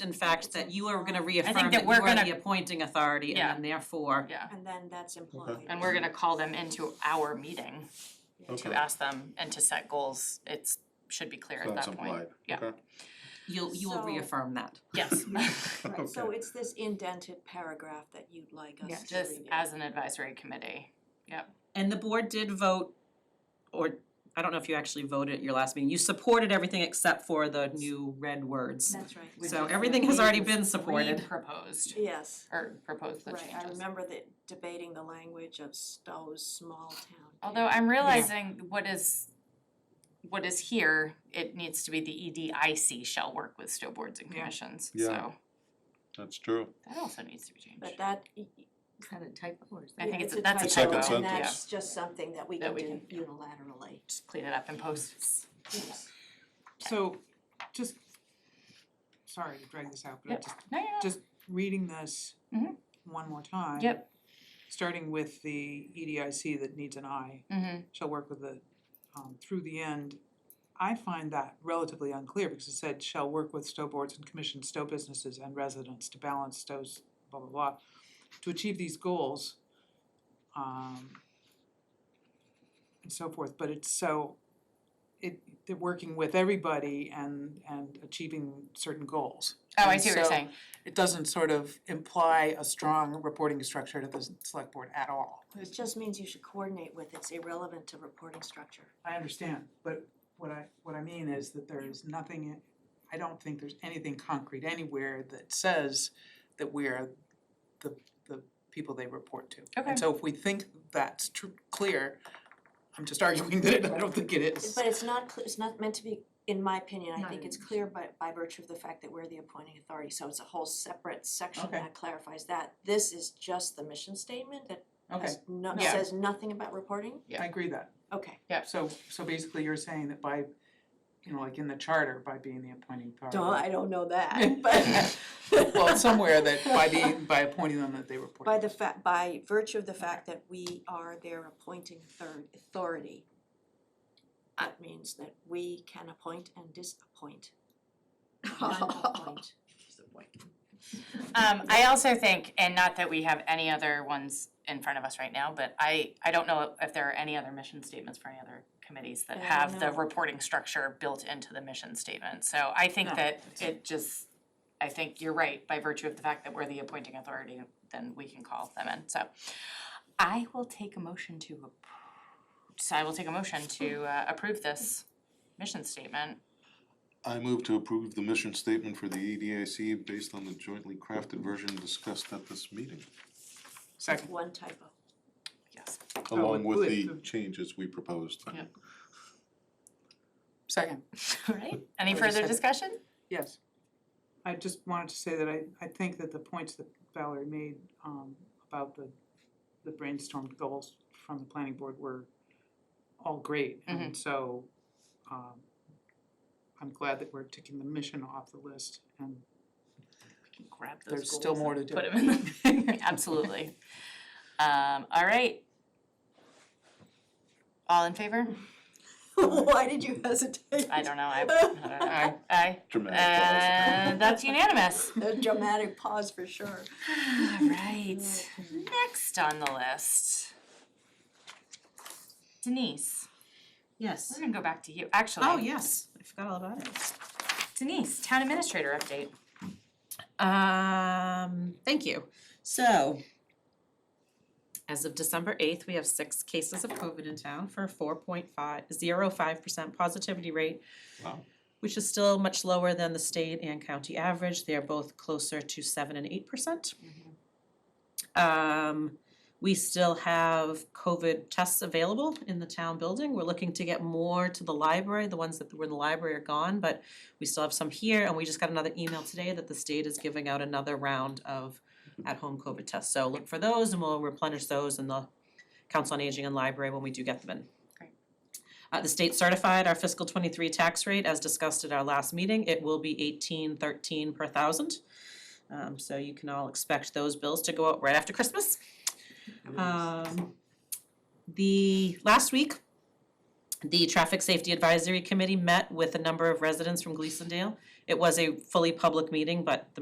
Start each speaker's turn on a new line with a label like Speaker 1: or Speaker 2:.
Speaker 1: in fact, that you are gonna reaffirm
Speaker 2: that
Speaker 1: that you
Speaker 2: we're
Speaker 1: are the
Speaker 2: gonna-
Speaker 1: appointing authority and
Speaker 2: Yeah.
Speaker 1: then therefore,
Speaker 2: Yeah,
Speaker 3: And then that's implied.
Speaker 2: and we're gonna call them into our meeting to
Speaker 4: Okay.
Speaker 2: ask them and to set goals. It's, should be clear
Speaker 4: So
Speaker 2: at
Speaker 4: that's
Speaker 2: that point.
Speaker 4: implied,
Speaker 2: Yeah.
Speaker 4: okay.
Speaker 1: you'll, you will
Speaker 3: So-
Speaker 1: reaffirm that.
Speaker 2: Yes,
Speaker 3: Right, so
Speaker 4: Okay.
Speaker 3: it's this indented paragraph that you'd like us to
Speaker 2: just
Speaker 3: review.
Speaker 2: as an advisory committee. Yep,
Speaker 1: And the board did vote, or, I don't know if you actually voted at your last meeting, you supported everything except for the new red words.
Speaker 3: That's right,
Speaker 2: Which
Speaker 1: So
Speaker 2: is
Speaker 1: everything
Speaker 2: what
Speaker 1: has already
Speaker 2: we-
Speaker 1: been supported.
Speaker 2: we proposed,
Speaker 3: yes,
Speaker 2: or proposed the
Speaker 3: right, I
Speaker 2: changes.
Speaker 3: remember the debating the language of Stowe's small town.
Speaker 2: Although I'm realizing what is, what is here, it needs to be the E EDIC shall work with still boards and
Speaker 1: Yeah.
Speaker 2: commissions,
Speaker 4: Yeah.
Speaker 2: so
Speaker 4: That's true.
Speaker 2: that also needs to be changed.
Speaker 3: But that,
Speaker 5: Kind of typo or something.
Speaker 2: I think it's,
Speaker 3: a
Speaker 2: that's a
Speaker 4: It's
Speaker 2: typo,
Speaker 4: like
Speaker 2: yeah.
Speaker 4: a
Speaker 3: and
Speaker 4: sentence.
Speaker 3: that's just something that we can
Speaker 2: That we
Speaker 3: do
Speaker 2: can-
Speaker 3: unilaterally.
Speaker 2: Just clean it up and post.
Speaker 6: So, just, sorry to drag this out, but I'm
Speaker 2: Yep.
Speaker 6: just
Speaker 2: No, yeah,
Speaker 6: Just- reading this
Speaker 2: Mhm.
Speaker 6: one more time.
Speaker 2: Yep.
Speaker 6: Starting with the E EDIC that needs an eye,
Speaker 2: mm-hmm,
Speaker 6: shall work with the, um, through the end. I find that relatively unclear because it said shall work with Stowe boards and commission Stowe businesses and residents to balance Stowe's blah, blah, blah. To achieve these goals, um, and so forth, but it's so, it, they're working with everybody and, and achieving certain goals.
Speaker 2: oh, I
Speaker 6: And
Speaker 2: see what you're
Speaker 6: so-
Speaker 2: saying,
Speaker 6: It doesn't sort of imply a strong reporting structure to the select board at all.
Speaker 3: It just means you should coordinate with, it's irrelevant to reporting structure.
Speaker 6: I understand, but what I, what I mean is that there is nothing, I don't think there's anything concrete anywhere that says that we are the, the people they report to.
Speaker 2: Okay.
Speaker 6: And so if we think that's tr- clear, I'm just arguing that it- I don't think it is.
Speaker 3: But it's not, cl- it's not meant to be, in my opinion, I
Speaker 2: Not
Speaker 3: think
Speaker 2: in-
Speaker 3: it's clear by, by virtue of the fact that we're the appointing authority, so it's a whole separate section
Speaker 6: Okay.
Speaker 3: that clarifies that. This is just the mission statement that
Speaker 6: Okay,
Speaker 3: has no,
Speaker 6: Yeah.
Speaker 3: says nothing about reporting?
Speaker 6: I agree that.
Speaker 3: Okay,
Speaker 6: So, so basically you're saying that by, you know, like in the charter, by being the appointing authority.
Speaker 3: Duh, I don't know that, but
Speaker 6: Well, somewhere that by being, by appointing them that they report.
Speaker 3: by the fa- by virtue of the fact that we are their appointing third authority, that means that we can appoint and disappoint. Non-appoint.
Speaker 2: um, I also think, and not that we have any other ones in front of us right now, but I, I don't know if there are any other mission statements for any other committees that
Speaker 3: Yeah,
Speaker 2: have the
Speaker 3: no.
Speaker 2: reporting structure built into the mission statement, so I think
Speaker 6: No.
Speaker 2: that it just, I think you're right, by virtue of the fact that we're the appointing authority, then we can call them in, so. I will take a motion to approve, so I will take a motion to uh, approve this mission statement
Speaker 4: I move to approve the mission statement for the EDIC based on the jointly crafted version discussed at this meeting,
Speaker 6: Second.
Speaker 3: One typo.
Speaker 2: Yes.
Speaker 3: Oh,
Speaker 4: along
Speaker 6: with
Speaker 4: with the
Speaker 6: the-
Speaker 4: changes we proposed.
Speaker 2: Yeah.
Speaker 6: Second.
Speaker 2: All right, any
Speaker 6: Wait a
Speaker 2: further
Speaker 6: second.
Speaker 2: discussion?
Speaker 6: Yes. I just wanted to say that I, I think that the points that Valerie made um about the the brainstormed goals from the planning board were all great. And so um I'm glad that we're ticking the mission off the list and
Speaker 2: Grab those
Speaker 6: there's still
Speaker 2: goals
Speaker 6: more
Speaker 2: and
Speaker 6: to do.
Speaker 2: Put them in the, absolutely. Um, all right. All in favor?
Speaker 3: Why did you hesitate?
Speaker 2: I don't know, I, I don't know. Aye.
Speaker 4: Dramatic
Speaker 2: And that's unanimous.
Speaker 3: A dramatic pause for sure.
Speaker 2: All right, next on the list. Denise, we're
Speaker 1: Yes.
Speaker 2: gonna go back to you, actually.
Speaker 1: Oh, yes, I forgot all about it.
Speaker 2: Denise, town administrator update.
Speaker 1: Um, thank you. So, as of December eighth, we have six cases of COVID in town for a four point five, zero five percent positivity rate.
Speaker 4: Wow.
Speaker 1: Which is still much lower than the state and county average. They are both closer to seven and eight percent. Um, we still have COVID tests available in the town building. We're looking to get more to the library. The ones that were in the library are gone, but we still have some here, and we just got another email today that the state is giving out another round of at-home COVID tests. So look for those and we'll replenish those in the Council on Aging and Library when we do get them in.
Speaker 2: Great.
Speaker 1: Uh, the state certified our fiscal twenty-three tax rate, as discussed at our last meeting, it will be eighteen thirteen per thousand. Um, so you can all expect those bills to go out right after Christmas. Um, the, last week, the Traffic Safety Advisory Committee met with a number of residents from Gleasondale It was a fully public meeting, but the